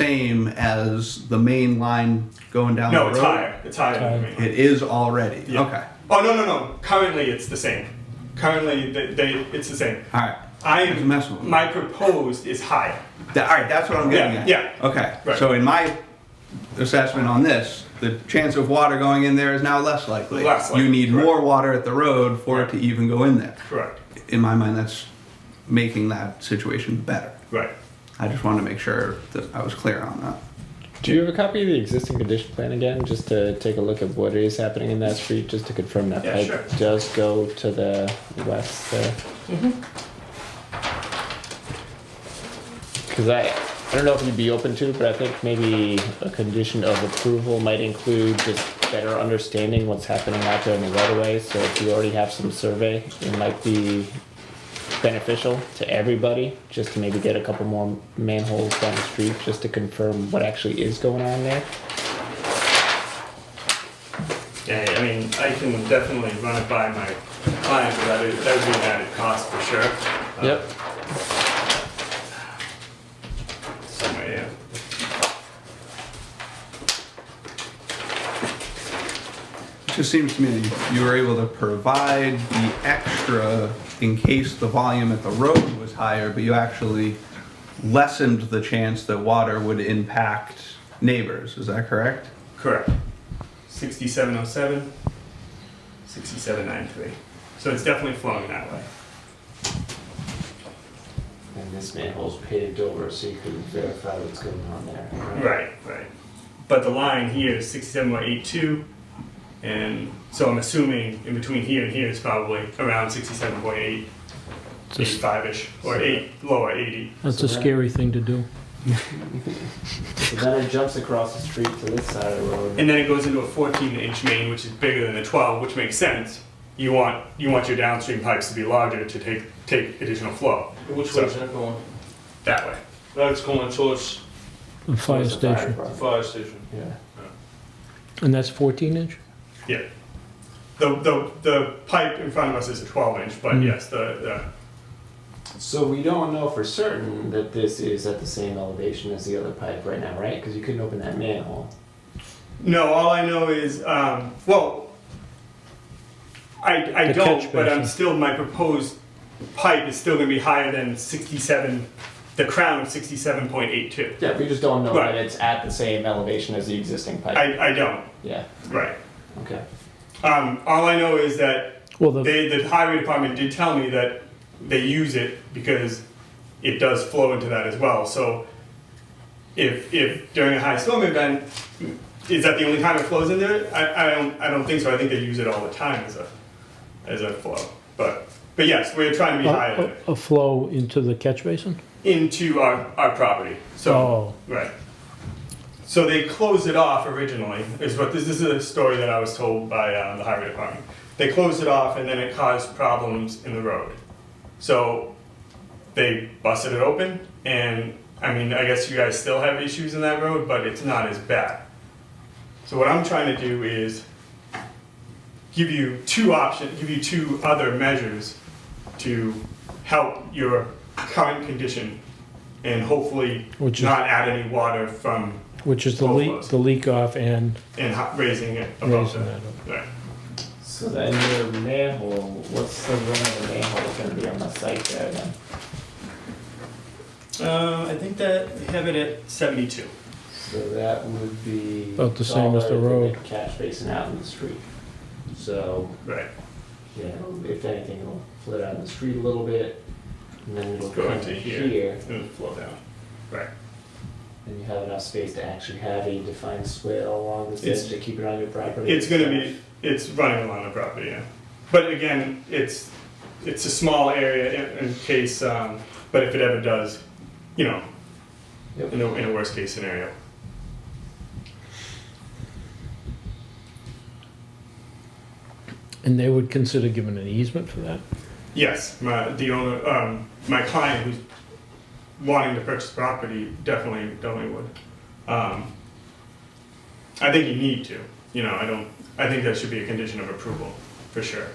same as the main line going down No, the it's road? higher. It's higher than the main. It is already. Yeah. Okay. Oh no no no! Currently, it's the same. Currently, they, they it's the same. All right. I It's a mess with me. my proposed is higher. That, all right, that's what I'm getting Yeah, at. yeah. Okay. Right. So in my assessment on this, the chance of water going in there is now less likely. Less likely, You need correct. more water at the road for it to even go in there. Correct. In my mind, that's making that situation better. Right. I just wanted to make sure that I was clear on that. Do you have a copy of the existing condition plan again, just to take a look at what is happening in that street, just to confirm that Yeah, pipe sure. does go to the west there? Because I, I don't know if you'd be open to, but I think maybe a condition of approval might include just better understanding what's happening out there in the right of way. So if you already have some survey, it might be beneficial to everybody just to maybe get a couple more manholes down the street just to confirm what actually is going on there. Yeah, I mean, I can definitely run it by my client, but that is that would be an added cost for sure. Uh, Yep. Somewhere, yeah. It just seems to me that you- you were able to provide the extra in case the volume at the road was higher, but you actually lessened the chance that water would impact neighbors. Is that correct? Correct. Sixty-seven oh seven. Sixty-seven nine three. So it's definitely flowing that way. And this manhole's paved over so you can verify what's going on there. Right, right. But the line here is sixty-seven point eight two, and so I'm assuming in between here and here is probably around sixty-seven point eight, Just- eighty-five-ish, or eight, lower eighty. That's So a that- scary thing to do. So then it jumps across the street to this side of the road. And then it goes into a fourteen-inch main, which is bigger than the twelve, which makes sense. You want, you want your downstream pipes to be larger to take, take additional flow, Which So- way is that going? that way. That's going towards The fire Towards the fire station. the department. fire station. Yeah. And that's 14 inch? Yeah. The, the, the pipe in front of us is a twelve-inch, but Mm. yes, the, So we don't know for certain that this is at the same elevation as the other pipe right now, right? Because you couldn't open that manhole. the, no, all I know is, um, well, I, I The don't, catch but I'm basin. still, my proposed pipe is still gonna be higher than sixty-seven, the crown of sixty-seven point eight-two. Yeah, we just don't know Right. that it's at the same elevation as the existing pipe. I, I don't, yeah. right. Okay. Um, all I know is that Well, the, They, the highway department did tell me that they use it because it does flow into that as well. So if, if during a high storm event, is that the only time it flows in there? I, I don't, I don't think so. I think they use it all the time as a, as a flow. But, but yes, we're trying to be higher than a, it. a flow into the catch basin? into our, our property. So, Oh. right. So they closed it off originally, is what this, this is a story that I was told by uh, the highway department. They closed it off and then it caused problems in the road. So they busted it open, and I mean, I guess you guys still have issues in that road, but it's not as bad. So what I'm trying to do is give you two options, give you two other measures to help your current condition and hopefully Which is- not add any water from Which is the Oh, leak, close. the leak off and and ho- raising it above raising that that. up. Right. So then your manhole, what's the run of the manhole going to be on the site there then? Um, I think that they have it at 72. So that would be About the same as the taller than road. the Catch basin out in the street. So Right. you know, if anything, it'll flood out in the street a little bit, and then it'll Go come into here. here, It'll flow down. Right. and you have enough space to actually have a defined swale along this It's- edge to keep it on your property. It's gonna be, it's running along the property, yeah. But again, it's, it's a small area in, in case, um, but if it ever does, you know, Yep. in a, in a worst case scenario. And they would consider giving an easement for that? Yes, my, the owner, um, my client who's wanting to purchase property definitely, definitely would. Um, I think you need to, you know, I don't, I think that should be a condition of approval, for sure.